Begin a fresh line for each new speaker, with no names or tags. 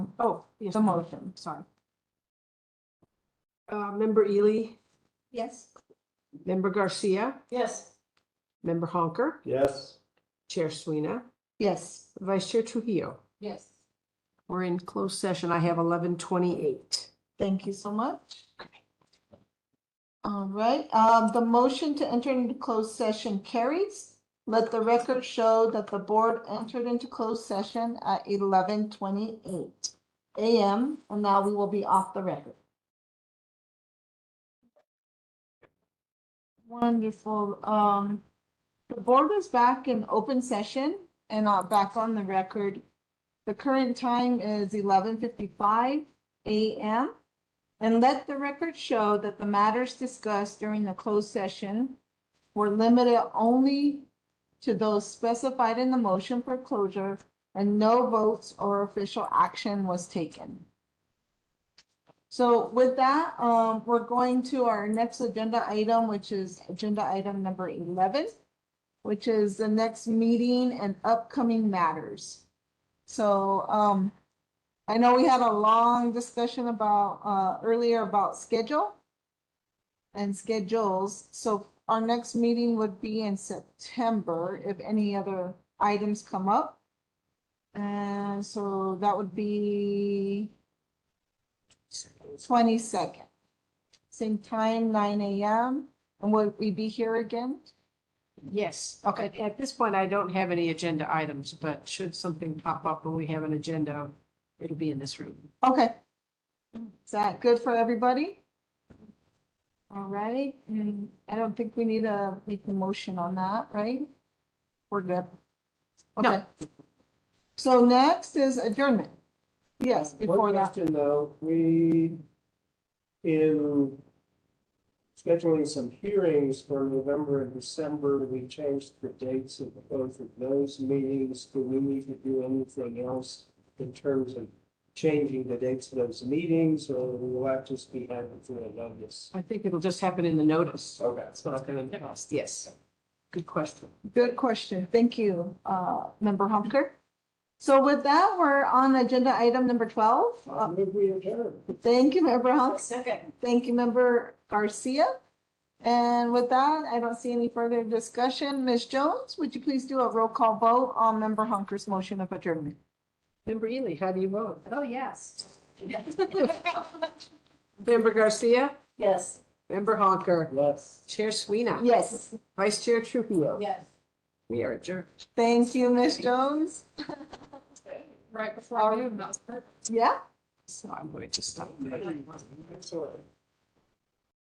Oh, yes.
the motion, sorry.
Uh, member Ely,
Yes.
member Garcia,
Yes.
member Honker,
Yes.
Chair Sweeney,
Yes.
Vice Chair Trujillo.
Yes.
We're in closed session. I have eleven twenty-eight.
Thank you so much. All right, um, the motion to enter into closed session carries. Let the record show that the board entered into closed session at eleven twenty-eight AM, and now we will be off the record. Wonderful, um, the board is back in open session and uh, back on the record. The current time is eleven fifty-five AM. And let the record show that the matters discussed during the closed session were limited only to those specified in the motion for closure and no votes or official action was taken. So with that, um, we're going to our next agenda item, which is agenda item number eleven, which is the next meeting and upcoming matters. So, um, I know we had a long discussion about, uh, earlier about schedule and schedules, so our next meeting would be in September if any other items come up. And so that would be twenty-second, same time, nine AM, and would we be here again?
Yes. Okay. At- At this point, I don't have any agenda items, but should something pop up when we have an agenda, it'll be in this room.
Okay. Is that good for everybody? All right, and I don't think we need to make a motion on that, right? We're good.
No.
Okay. So next is adjournment. Yes, before
Um, One
that,
question though, we, in scheduling some hearings for November and December, we changed the dates of both of those meetings. Do we need to do anything else in terms of changing the dates of those meetings or will that just be handled through a notice?
I think it'll just happen in the notice.
Uh,
Okay.
It's not gonna cost, yes. Good question.
good question. Thank you, uh, member Humker. So with that, we're on agenda item number twelve.
I
Uh,
move we adjourn.
Thank you, member Humks.
Second.
Thank you, Member Garcia. And with that, I don't see any further discussion. Ms. Jones, would you please do a roll call vote on Member Hunker's motion of adjournment?
Member Ely, how do you vote?
Oh, yes.
Member Garcia,
Yes.
member Honker,
Yes.
Chair Sweeney,
Yes,
Vice Chair Trujillo.
Yes.
We are adjourned.
thank you, Ms. Jones.
Right before noon, that was perfect.
Yeah,
So I'm going to stop.
Excellent.